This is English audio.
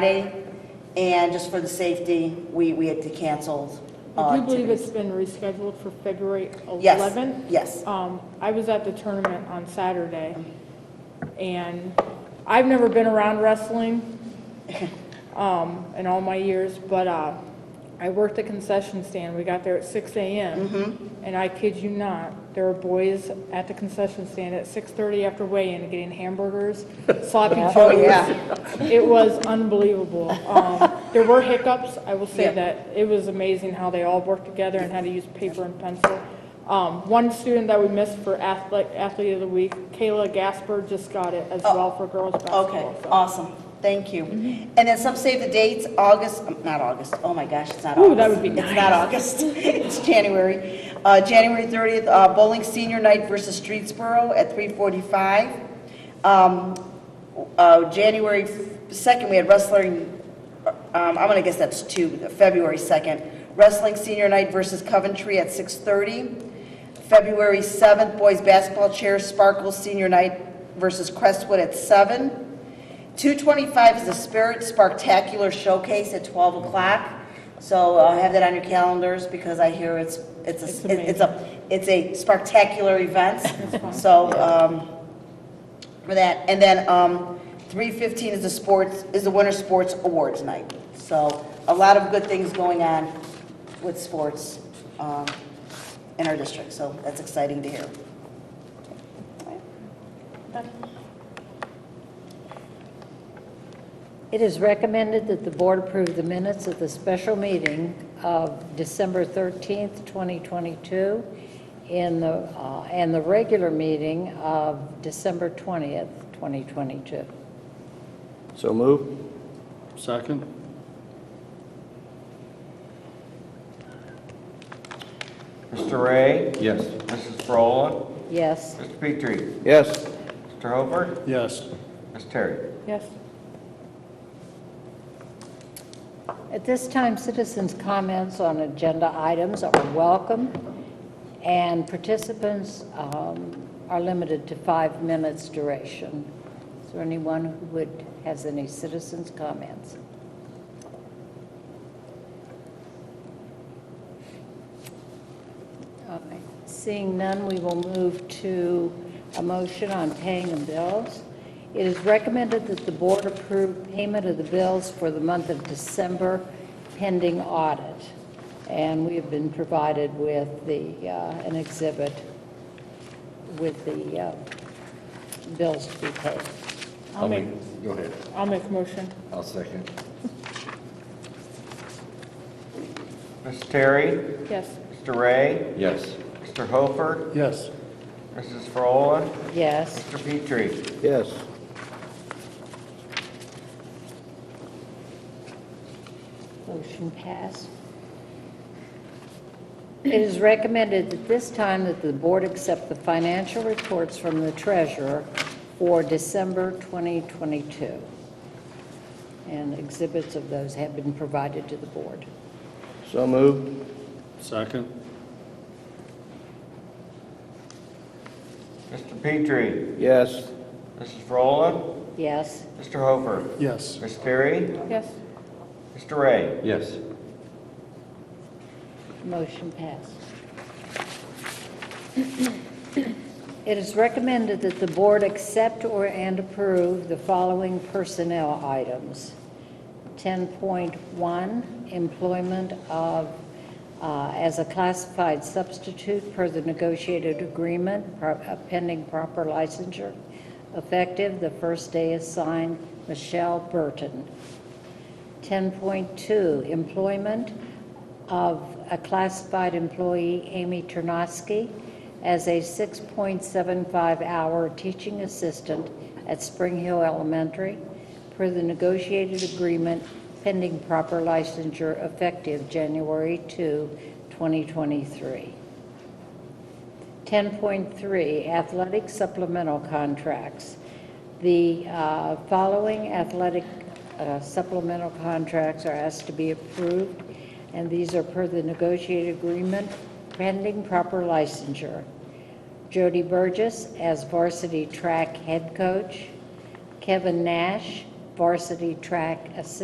Friday, and just for the safety, we, we had to cancel. uh, I do believe activities. it's been rescheduled for February 11th. Yes, yes. Um, I was at the tournament on Saturday, and I've never been around wrestling um, in all my years, but uh, I worked the concession stand. We got there at 6 a.m. Mm-hmm. And I kid you not, there were boys at the concession stand at 6:30 after weigh-in getting hamburgers, sloppy Oh, joes. yeah. It was unbelievable. Um, There were hiccups, I will say Yeah. that. It was amazing how they all worked together and how to use paper and pencil. Um, One student that we missed for athlete, athlete of the week, Kayla Gasper, just got it as well for girls Oh, Okay, basketball. so- awesome, thank you. And then some save the dates, August, um, not August, oh my gosh, it's not August. Ooh, that would be It's not August, it's January. Uh, January 30th, uh, bowling senior night versus Streetsboro at 3:45. Um, uh, January 2nd, we had wrestling, um, I'm gonna guess that's two, February 2nd. Wrestling senior night versus Coventry at 6:30. February 7th, boys basketball chair Sparkles senior night versus Crestwood at 7. 225 is the Spirit Sparktacular Showcase at 12 o'clock. So uh, have that on your calendars because I hear it's, it's, It's a it's a, it's a spectacular event. So, um, for that. And then, um, 3:15 is the sports, is the Winter Sports Awards Night. So a lot of good things going on with sports, um, in our district, so that's exciting to hear. It is recommended that the board approve the minutes of the special meeting of December 13th, 2022, in the, uh, and the regular meeting of December 20th, 2022. So move. Second. Mr. Ray? Yes. Mrs. Brolin? Yes, Mr. Petrie? Yes. Mr. Hofer? Yes. Ms. Terry? Yes, at this time, citizens' comments on agenda items are welcome, and participants um, are limited to five minutes duration. Is there anyone who would, has any citizens' comments? All right. Seeing none, we will move to a motion on paying the bills. It is recommended that the board approve payment of the bills for the month of December pending audit. And we have been provided with the, uh, an exhibit with the uh, bills to be paid. I'll make, Go ahead. I'll make a motion. I'll second. Ms. Terry? Yes, Mr. Ray? Yes. Mr. Hofer? Yes. Mrs. Brolin? Yes. Mr. Petrie? Yes. Motion passed. It is recommended at this time that the board accept the financial reports from the treasurer for December 2022. And exhibits of those have been provided to the board. So move. Second. Mr. Petrie? Yes. Mrs. Brolin? Yes? Mr. Hofer? Yes. Ms. Terry? yes, Mr. Ray? Yes. Motion passed. It is recommended that the board accept or and approve the following personnel items. 10.1, employment of, uh, as a classified substitute per the negotiated agreement pro- uh, pending proper licensure, effective the first day assigned Michelle Burton. 10.2, employment of a classified employee, Amy Ternosky, as a 6.75-hour teaching assistant at Spring Hill Elementary per the negotiated agreement pending proper licensure effective January 2, 2023. 10.3, athletic supplemental contracts. The uh, following athletic uh, supplemental contracts are asked to be approved, and these are per the negotiated agreement pending proper licensure. Jody Burgess as varsity track head coach, Kevin Nash, varsity track assistant